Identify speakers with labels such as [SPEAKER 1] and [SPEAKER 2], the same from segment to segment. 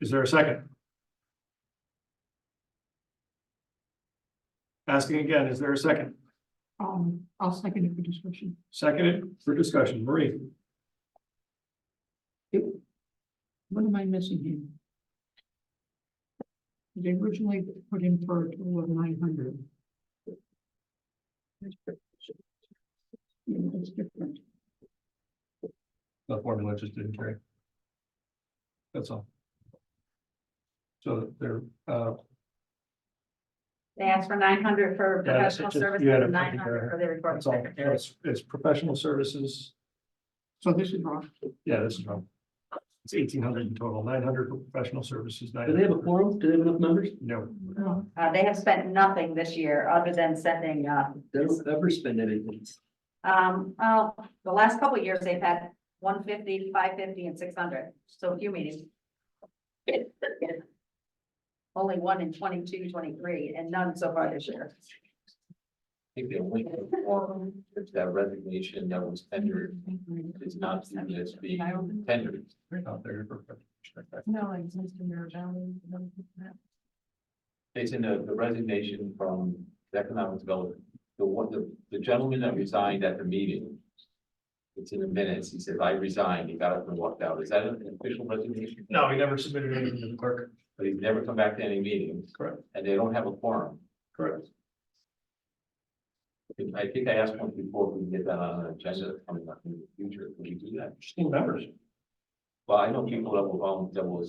[SPEAKER 1] Is there a second? Asking again, is there a second?
[SPEAKER 2] Um, I'll second it for discussion.
[SPEAKER 1] Seconded for discussion, Marie?
[SPEAKER 2] It- What am I missing here? They originally put in for a total of nine hundred. Yeah, it's different.
[SPEAKER 1] The formula just didn't carry. That's all. So they're, uh,
[SPEAKER 3] They asked for nine hundred for
[SPEAKER 1] Yeah, it's
[SPEAKER 3] professional
[SPEAKER 1] just- you
[SPEAKER 3] services,
[SPEAKER 1] had it
[SPEAKER 3] and
[SPEAKER 1] put
[SPEAKER 3] nine
[SPEAKER 1] together.
[SPEAKER 3] hundred for the recording
[SPEAKER 1] that's all,
[SPEAKER 3] secretary.
[SPEAKER 1] it's, it's professional services,
[SPEAKER 2] So this is wrong.
[SPEAKER 1] yeah, this is wrong. It's eighteen hundred in total, nine hundred for professional services.
[SPEAKER 4] Do they have a quorum? Do they have enough members?
[SPEAKER 1] No,
[SPEAKER 2] No,
[SPEAKER 3] Uh, they have spent nothing this year other than sending, uh,
[SPEAKER 4] They don't ever spend anything.
[SPEAKER 3] um, well, the last couple of years, they've had 150, 550, and six hundred, so a few meetings. Only one in 22, 23, and none so far this year.
[SPEAKER 5] I think the only form of that resignation that was tendered is not seen as being tendered.
[SPEAKER 1] they're not there. for-
[SPEAKER 2] like Mr. Mirabelli.
[SPEAKER 5] It's in the the resignation from the economic development. The one, the, the gentleman that resigned at the meeting. It's in the minutes. He says, I resigned. He got up and walked out. Is that an official resignation?
[SPEAKER 1] No, he never submitted anything to the clerk.
[SPEAKER 5] But he's never come back to any meetings.
[SPEAKER 1] Correct.
[SPEAKER 5] And they don't have a forum.
[SPEAKER 1] Correct.
[SPEAKER 5] I think I asked once before, if we can get that on an agenda coming up in the future. Can we do that?
[SPEAKER 1] Still members.
[SPEAKER 5] Well, I know people that will, volun- that will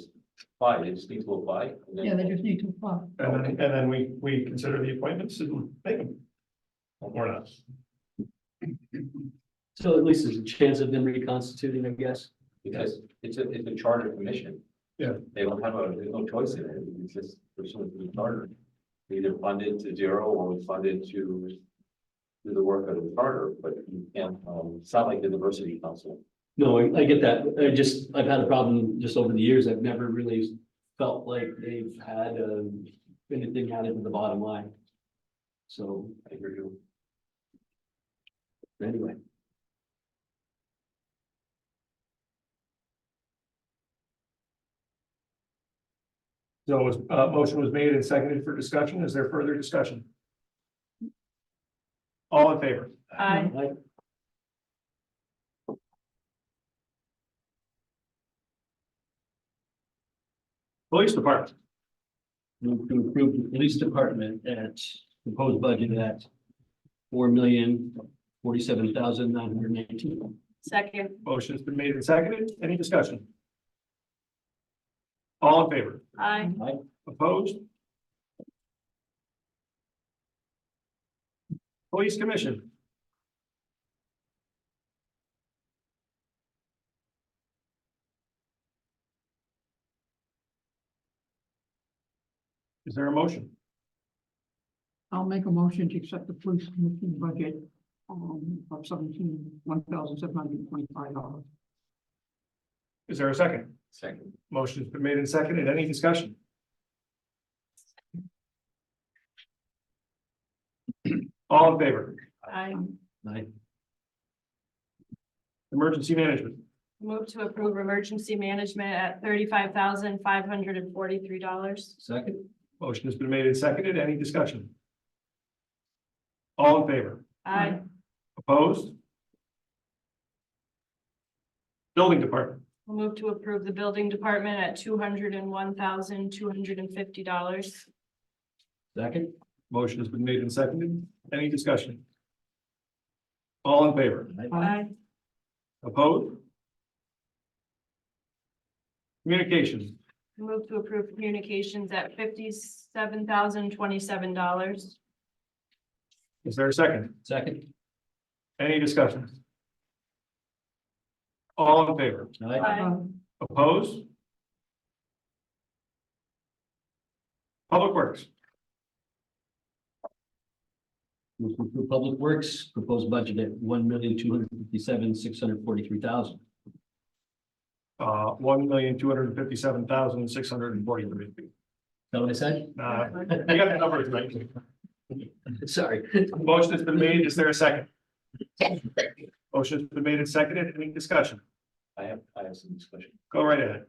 [SPEAKER 5] apply. They just need to apply. and then-
[SPEAKER 2] Yeah, they just need to uh, apply.
[SPEAKER 1] And then, and then we, we consider the appointments and make them. Or not.
[SPEAKER 4] So at least there's a chance of them reconstituting, I guess.
[SPEAKER 5] Because it's a, it's a charter commission.
[SPEAKER 1] Yeah.
[SPEAKER 5] They don't have a, there's no choice in it, it's just pursuant to the charter. Either funded to zero or funded to do the work of the charter, but you can't, um, it's not like the diversity council.
[SPEAKER 4] No, I, I get that. I just, I've had a problem just over the years. I've never really felt like they've had, um, anything added to the bottom line. So
[SPEAKER 5] I hear you.
[SPEAKER 4] anyway,
[SPEAKER 1] So it was, uh, motion was made and seconded for discussion. Is there further discussion? All in favor?
[SPEAKER 3] Aye.
[SPEAKER 4] I,
[SPEAKER 1] Police Department,
[SPEAKER 4] Move to approve the police department at proposed budget at four million, forty-seven thousand, nine hundred and eighteen.
[SPEAKER 3] Second,
[SPEAKER 1] motion's been made and seconded. Any discussion? All in favor?
[SPEAKER 3] aye.
[SPEAKER 4] Aye.
[SPEAKER 1] Opposed? Police Commission, is there a motion?
[SPEAKER 2] I'll make a motion to accept the police commission budget um of seventeen, one thousand seven hundred and twenty-five dollars.
[SPEAKER 1] Is there a second?
[SPEAKER 5] Second,
[SPEAKER 1] Motion's been made and seconded. Any discussion? All in favor?
[SPEAKER 3] Aye.
[SPEAKER 4] Aye.
[SPEAKER 1] Emergency Management,
[SPEAKER 6] Move to approve emergency management at thirty-five thousand five hundred and forty-three dollars.
[SPEAKER 4] Second,
[SPEAKER 1] motion has been made and seconded. Any discussion? All in favor?
[SPEAKER 6] Aye.
[SPEAKER 1] Opposed? Building Department,
[SPEAKER 6] Move to approve the building department at two hundred and one thousand two hundred and fifty dollars.
[SPEAKER 4] second,
[SPEAKER 1] motion has been made and seconded. Any discussion? All in favor?
[SPEAKER 6] Aye.
[SPEAKER 1] Opposed? Communications,
[SPEAKER 6] Move to approve communications at fifty-seven thousand twenty-seven dollars.
[SPEAKER 1] is there a second?
[SPEAKER 4] second.
[SPEAKER 1] Any discussion? All in favor?
[SPEAKER 4] Aye.
[SPEAKER 1] Opposed? Public Works,
[SPEAKER 4] Move to approve Public Works, proposed budget at one million, two hundred fifty-seven, six hundred forty-three thousand.
[SPEAKER 1] uh, one million, two hundred and fifty-seven thousand, six hundred and forty-three.
[SPEAKER 4] That what I said?
[SPEAKER 1] Uh, I got the number right.
[SPEAKER 4] Sorry.
[SPEAKER 1] Motion has been made. Is there a second? Motion's been made and seconded. Any discussion?
[SPEAKER 5] I have, I have some discussion.
[SPEAKER 1] Go right ahead.